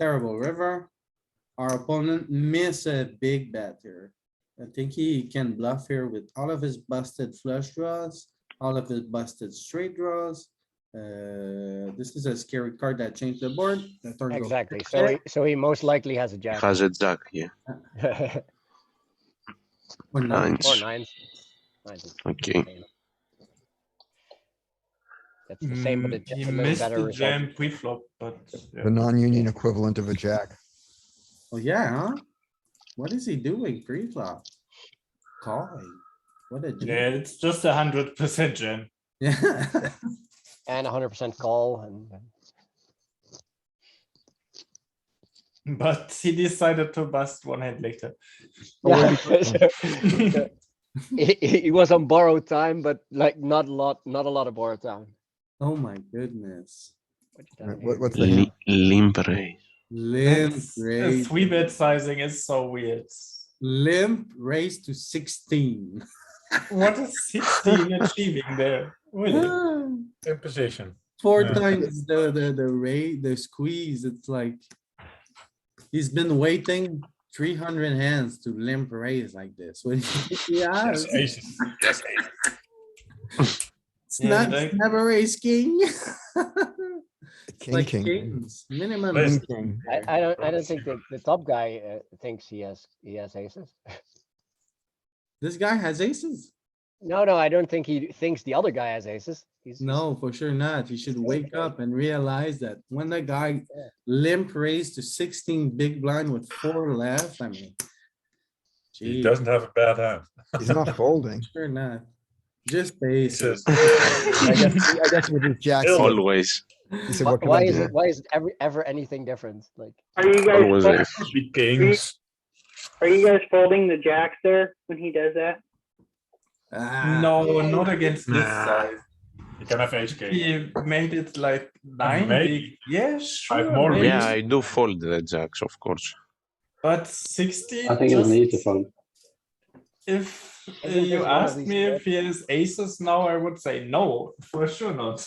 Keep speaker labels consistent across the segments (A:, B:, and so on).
A: terrible river. Our opponent miss a big bet here. I think he can bluff here with all of his busted flush draws, all of his busted straight draws. Uh, this is a scary card that changed the board. The turn goes
B: Exactly.
A: check,
B: So
A: check.
B: he, so he most likely has a jack
C: has a jack here.
B: or
A: Or not.
C: Nines.
B: nines. Nines is
C: Okay.
B: same. That's the same, but
D: Mm,
B: it's
D: he
B: just a little
D: missed
B: better
D: the
B: result.
D: jam pre-flop, but yeah.
E: The non-union equivalent of a jack.
A: Oh, yeah, huh? What is he doing pre-flop? Calling. What a. jerk.
D: Yeah, it's just a hundred percent jam.
A: Yeah.
B: And hundred percent call and
D: But he decided to bust one hand later. Oh,
B: Yeah, so- so He, he he was on borrowed time, but like not a lot, not a lot of borrowed time.
A: Oh, my goodness.
B: What you done
E: What,
B: here?
E: what's the hand?
C: Li- limp raise.
A: Limp
D: It's- the
A: raise,
D: Three bet sizing is so weird.
A: limp raise to sixteen.
D: What is sixteen achieving there? Really?
F: Imposition.
A: Four
F: Yeah.
A: times the, the, the rate, the squeeze, it's like. He's been waiting three hundred hands to limp raise like this. When yeah,
F: Yes, aces. Yes, aces.
A: it's
D: Yeah,
A: not,
D: like-
A: it's never ace king.
E: King,
A: Like
E: king.
A: kings, minimum.
D: But
A: ace
D: it's-
A: king
B: I,
A: there.
B: I don't, I don't think that the top guy uh, thinks he has, he has aces.
A: This guy has aces?
B: No, no, I don't think he thinks the other guy has aces. He's he's-
A: No, for sure not. You should wake up and realize that when the guy
B: Yeah.
A: limp raised to sixteen big blind with four left, I mean.
F: He
A: Gee,
F: doesn't have a bad hand.
E: He's not folding.
A: sure not. Just
F: He
A: aces.
F: says,
E: I guess, I guess with his jack. he
C: Always.
E: said,
B: Why,
E: what can
B: why
E: I
B: is
E: do?
B: it? Why is it ever ever anything different? Like
G: Are you
C: Always
G: guys, fol-
C: ace.
F: "Be kings.
G: are you guys folding the jacks there when he does that?
A: Ah,
D: No, not against this
F: Nah.
D: size.
F: You can have ace king.
D: He made it like nine
F: Maybe.
D: big. Yeah, sure.
F: more
D: maybe.
C: Yeah, I do fold the jacks, of course.
D: But sixteen.
H: I think it's
D: just-
H: an easy phone.
D: If uh,
B: think there's
D: you
B: one of
D: asked
B: these
D: me if he has aces now, I would say no, for sure not.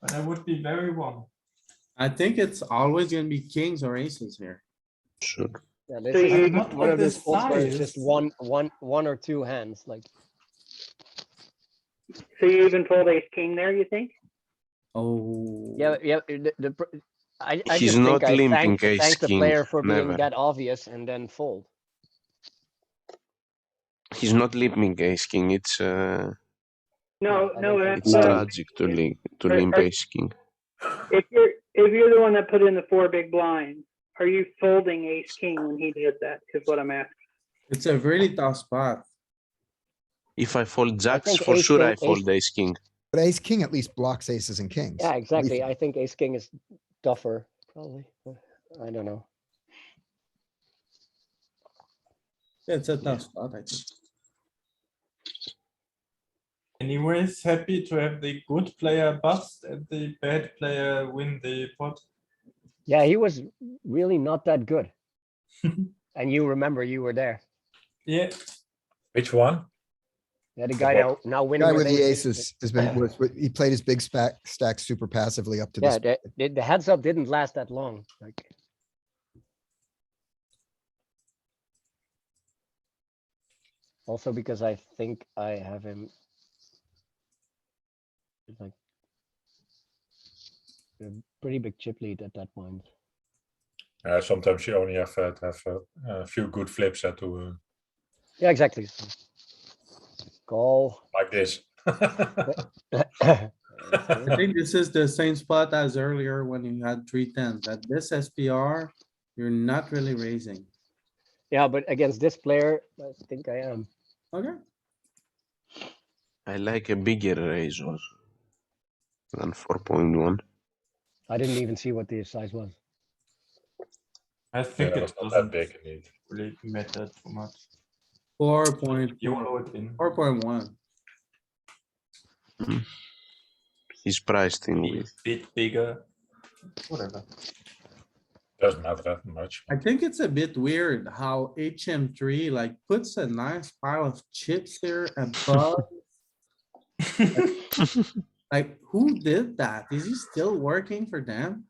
D: But I would be very wrong.
A: I think it's always gonna be kings or aces here.
C: Sure.
B: yeah, this
G: So
B: is
G: you-
B: just
D: Not
B: one
D: with
B: of those
D: this
B: folds where it's just
D: size.
B: one, one, one or two hands. Like
G: So you even fold ace king there, you think?
A: Oh.
B: yeah, yeah. The, the pr- I, I
C: He's
B: just
C: not
B: think I
C: limping
B: thank,
C: ace
B: thank the
C: king,
B: player for being
C: never.
B: that obvious and then fold.
C: He's not limping ace king. It's uh,
G: No,
B: I
G: no,
B: don't
G: that's
C: it's
H: No.
G: not.
C: tragic to limp to
G: Right,
C: limp
G: right.
C: ace king.
G: If you're, if you're the one that put in the four big blinds, are you folding ace king when he does that? Is what I'm asking.
A: It's a really tough spot.
C: If I fold jacks,
B: think
C: for
B: ace
C: sure
B: king-
C: I fold ace king.
E: But ace king at least blocks aces and kings.
B: Yeah, exactly.
E: think.
B: I think ace king is tougher, probably. but I don't know.
A: It's a tough spot, I think.
D: Anyways, happy to have the good player bust and the bad player win the pot.
B: Yeah, he was really not that good. and you remember you were there.
D: Yeah,
F: Which one?
B: Yeah, the guy now now winning
E: Guy with the
B: ace-
E: aces has been, was- he played his big stack, stack super passively up to
B: Yeah,
E: this.
B: the, the, the heads up didn't last that long. Like also because I think I have him with, like a pretty big chip lead at that point.
F: Uh, sometimes you only have uh, to have uh, a few good flips uh, to uh,
B: Yeah, exactly. so Call.
F: like this.
A: I think this is the same spot as earlier when you had three tens. At this SPR, you're not really raising.
B: Yeah, but against this player, I think I am.
A: Okay,
C: I like a bigger raise also than four point one.
B: I didn't even see what the size was.
D: I
F: Yeah,
D: think
F: it
D: it
F: was not that
D: doesn't
F: big indeed.
D: really matter too much.
A: four point,
D: You know it in.
A: four point one.
C: He's priced in with
D: Bit bigger, whatever.
F: Doesn't matter that much.
A: I think it's a bit weird how HM three like puts a nice pile of chips here above. Like, who did that? Is he still working for them?